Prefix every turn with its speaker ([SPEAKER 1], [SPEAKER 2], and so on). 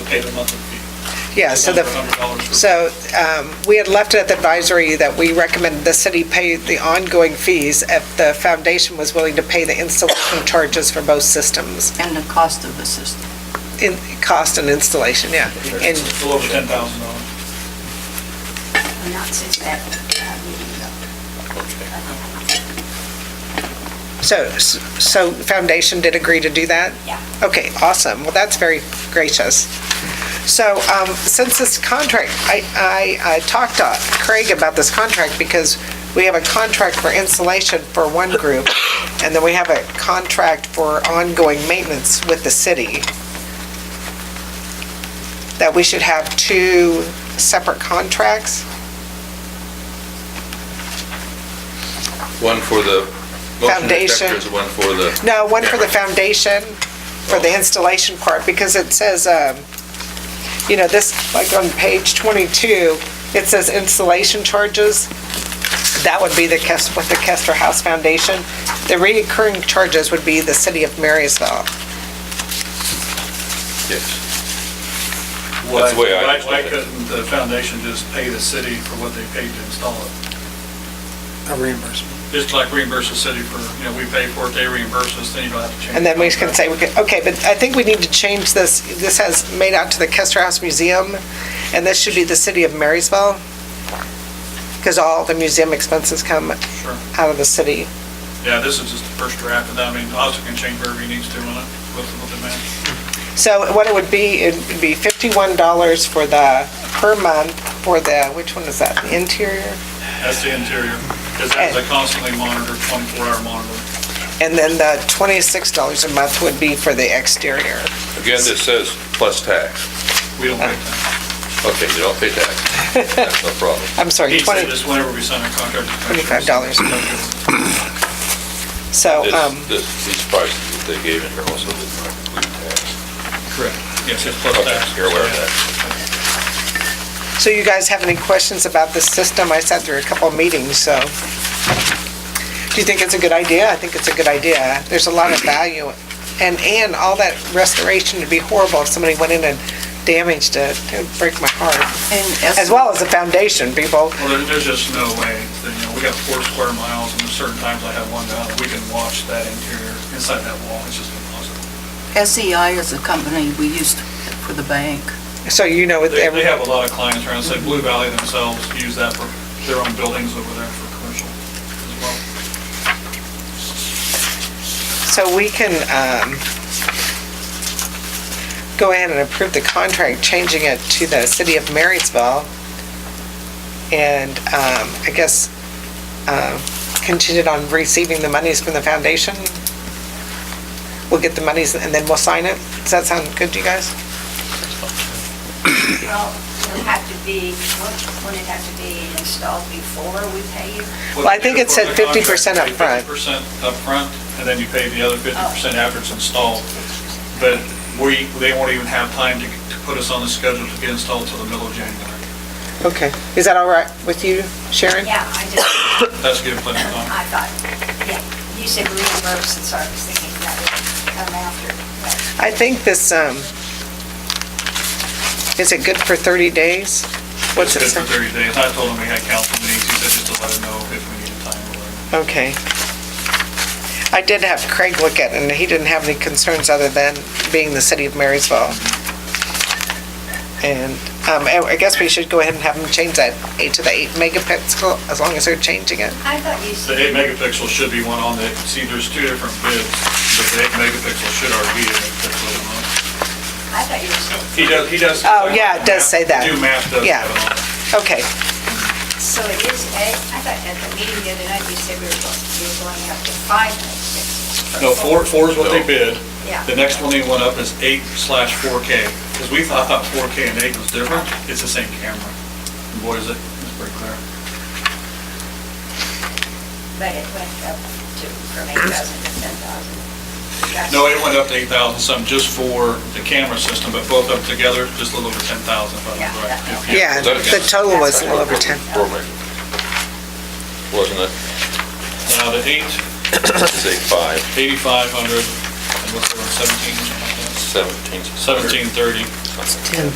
[SPEAKER 1] pay the monthly fee.
[SPEAKER 2] Yeah, so the,
[SPEAKER 1] $100 for-
[SPEAKER 2] so um, we had left it at the advisory that we recommend the city pay the ongoing fees if the foundation was willing to pay the installation charges for both systems,
[SPEAKER 3] and the cost of the system.
[SPEAKER 2] in cost and installation, yeah. And
[SPEAKER 1] It's a little over ten thousand dollars.
[SPEAKER 4] Not since that uh, meeting, though.
[SPEAKER 2] so, so foundation did agree to do that?
[SPEAKER 4] Yeah.
[SPEAKER 2] Okay, awesome. Well, that's very gracious. So um, since this contract, I, I uh, talked to Craig about this contract because we have a contract for installation for one group, and then we have a contract for ongoing maintenance with the city. That we should have two separate contracts?
[SPEAKER 5] One for the motion
[SPEAKER 2] Foundation.
[SPEAKER 5] detectors, one for the,
[SPEAKER 2] No, one for the foundation, for the installation part, because it says, um, you know, this, like on page 22, it says installation charges. That would be the Kest, with the Kester House Foundation. The reoccurring charges would be the city of Marysville.
[SPEAKER 5] yes.
[SPEAKER 1] Why,
[SPEAKER 5] That's the way I
[SPEAKER 1] why-
[SPEAKER 5] understood
[SPEAKER 1] why
[SPEAKER 5] it.
[SPEAKER 1] couldn't the foundation just pay the city for what they paid to install it?
[SPEAKER 6] a reimbursement.
[SPEAKER 1] Just like reimburse the city for, you know, we pay for it, they reimburse us, then you don't have to change.
[SPEAKER 2] And then we
[SPEAKER 1] the
[SPEAKER 2] can
[SPEAKER 1] contract.
[SPEAKER 2] say, we could- okay, but I think we need to change this, this has made out to the Kester House Museum, and this should be the city of Marysville, because all the museum expenses come
[SPEAKER 1] Sure.
[SPEAKER 2] out of the city.
[SPEAKER 1] Yeah, this is just the first draft, and I mean, Austin can change wherever he needs to on it, with, with the man.
[SPEAKER 2] So what it would be, it would be fifty-one dollars for the, per month for the, which one is that, the interior?
[SPEAKER 1] That's the interior, because that's a constantly monitored, twenty-four hour monitor.
[SPEAKER 2] And then the twenty-six dollars a month would be for the exterior.
[SPEAKER 5] Again, this says plus tax.
[SPEAKER 1] We don't pay that.
[SPEAKER 5] Okay, you don't pay tax. That's no problem.
[SPEAKER 2] I'm sorry,
[SPEAKER 1] He said
[SPEAKER 2] twenty,
[SPEAKER 1] this whenever we sign a contract. with
[SPEAKER 2] $25.
[SPEAKER 1] commissioners.
[SPEAKER 2] so, um,
[SPEAKER 5] This, this, these prices that they gave in here also did not include tax.
[SPEAKER 1] Correct. Yes, it's plus
[SPEAKER 5] Okay,
[SPEAKER 1] tax.
[SPEAKER 5] you're aware of that.
[SPEAKER 2] so you guys have any questions about this system? I sat through a couple of meetings, so. Do you think it's a good idea? I think it's a good idea. There's a lot of value. And, and all that restoration would be horrible if somebody went in and damaged it. It would break my heart. As well as the foundation, people.
[SPEAKER 1] Well, there- there's just no way, that, you know, we got four square miles, and there's certain times I have one down, we can watch that interior inside that wall, it's just impossible.
[SPEAKER 3] SEI E is a company we used for the bank.
[SPEAKER 2] So you know with
[SPEAKER 1] They,
[SPEAKER 2] every.
[SPEAKER 1] they have a lot of clients around, say Blue Valley themselves use that for their own buildings over there for commercial as well.
[SPEAKER 2] So we can um, go ahead and approve the contract, changing it to the city of Marysville. And um, I guess uh, contingent on receiving the monies from the foundation. We'll get the monies and then we'll sign it. Does that sound good to you guys?
[SPEAKER 4] Well, it'll have to be, won't it have to be installed before we pay you?
[SPEAKER 2] Well, I think it said 50% up front.
[SPEAKER 1] Fifty percent up front, and then you pay the other fifty percent after it's installed. But we, they won't even have time to, to put us on the schedule to get installed till the middle of January.
[SPEAKER 2] Okay. Is that all right with you, Sharon?
[SPEAKER 4] Yeah, I just,
[SPEAKER 1] That's given plenty of time.
[SPEAKER 4] I thought, yeah, you said reimburse, and so I was thinking that would come after. but
[SPEAKER 2] I think this, um, is it good for 30 days? What's it
[SPEAKER 1] It's
[SPEAKER 2] say?
[SPEAKER 1] good for thirty days. I told them we had council meetings, he said just to let them know if we needed time or whatever.
[SPEAKER 2] Okay. I did have Craig look at it, and he didn't have any concerns other than being the city of Marysville. And um, I I guess we should go ahead and have them change that eight to the eight megapixel, as long as they're changing it.
[SPEAKER 4] I thought you
[SPEAKER 1] The
[SPEAKER 4] said,
[SPEAKER 1] eight megapixel should be one on the, see, there's two different bids, but the eight megapixel should already be a megapixel on it.
[SPEAKER 4] I thought you said,
[SPEAKER 1] He does, he does.
[SPEAKER 2] Oh, yeah, it does say that.
[SPEAKER 1] Do math does
[SPEAKER 2] Yeah.
[SPEAKER 1] have it on it.
[SPEAKER 2] Okay,
[SPEAKER 4] so it is eight, I thought at the meeting the other night, you said we were going, you were going up to five megapixels.
[SPEAKER 1] No, four, four is what they bid.
[SPEAKER 4] Yeah.
[SPEAKER 1] The next one they went up is eight slash four K, because we thought, thought four K and eight was different. It's the same camera. And Boy, is it, it's pretty clear.
[SPEAKER 4] But it went up to, from eight thousand to ten thousand.
[SPEAKER 1] No, it went up to eight thousand something just for the camera system, but both of them together, just a little over ten thousand, if I remember
[SPEAKER 4] Yeah, that-
[SPEAKER 1] right.
[SPEAKER 2] yeah, the total was a little over 10.
[SPEAKER 5] Four meg- Wasn't it?
[SPEAKER 1] Now, the eight,
[SPEAKER 5] Say five.
[SPEAKER 1] eighty-five hundred, and what's the one, seventeen, something like that?
[SPEAKER 7] seventeen.
[SPEAKER 5] 1730.
[SPEAKER 1] It's 10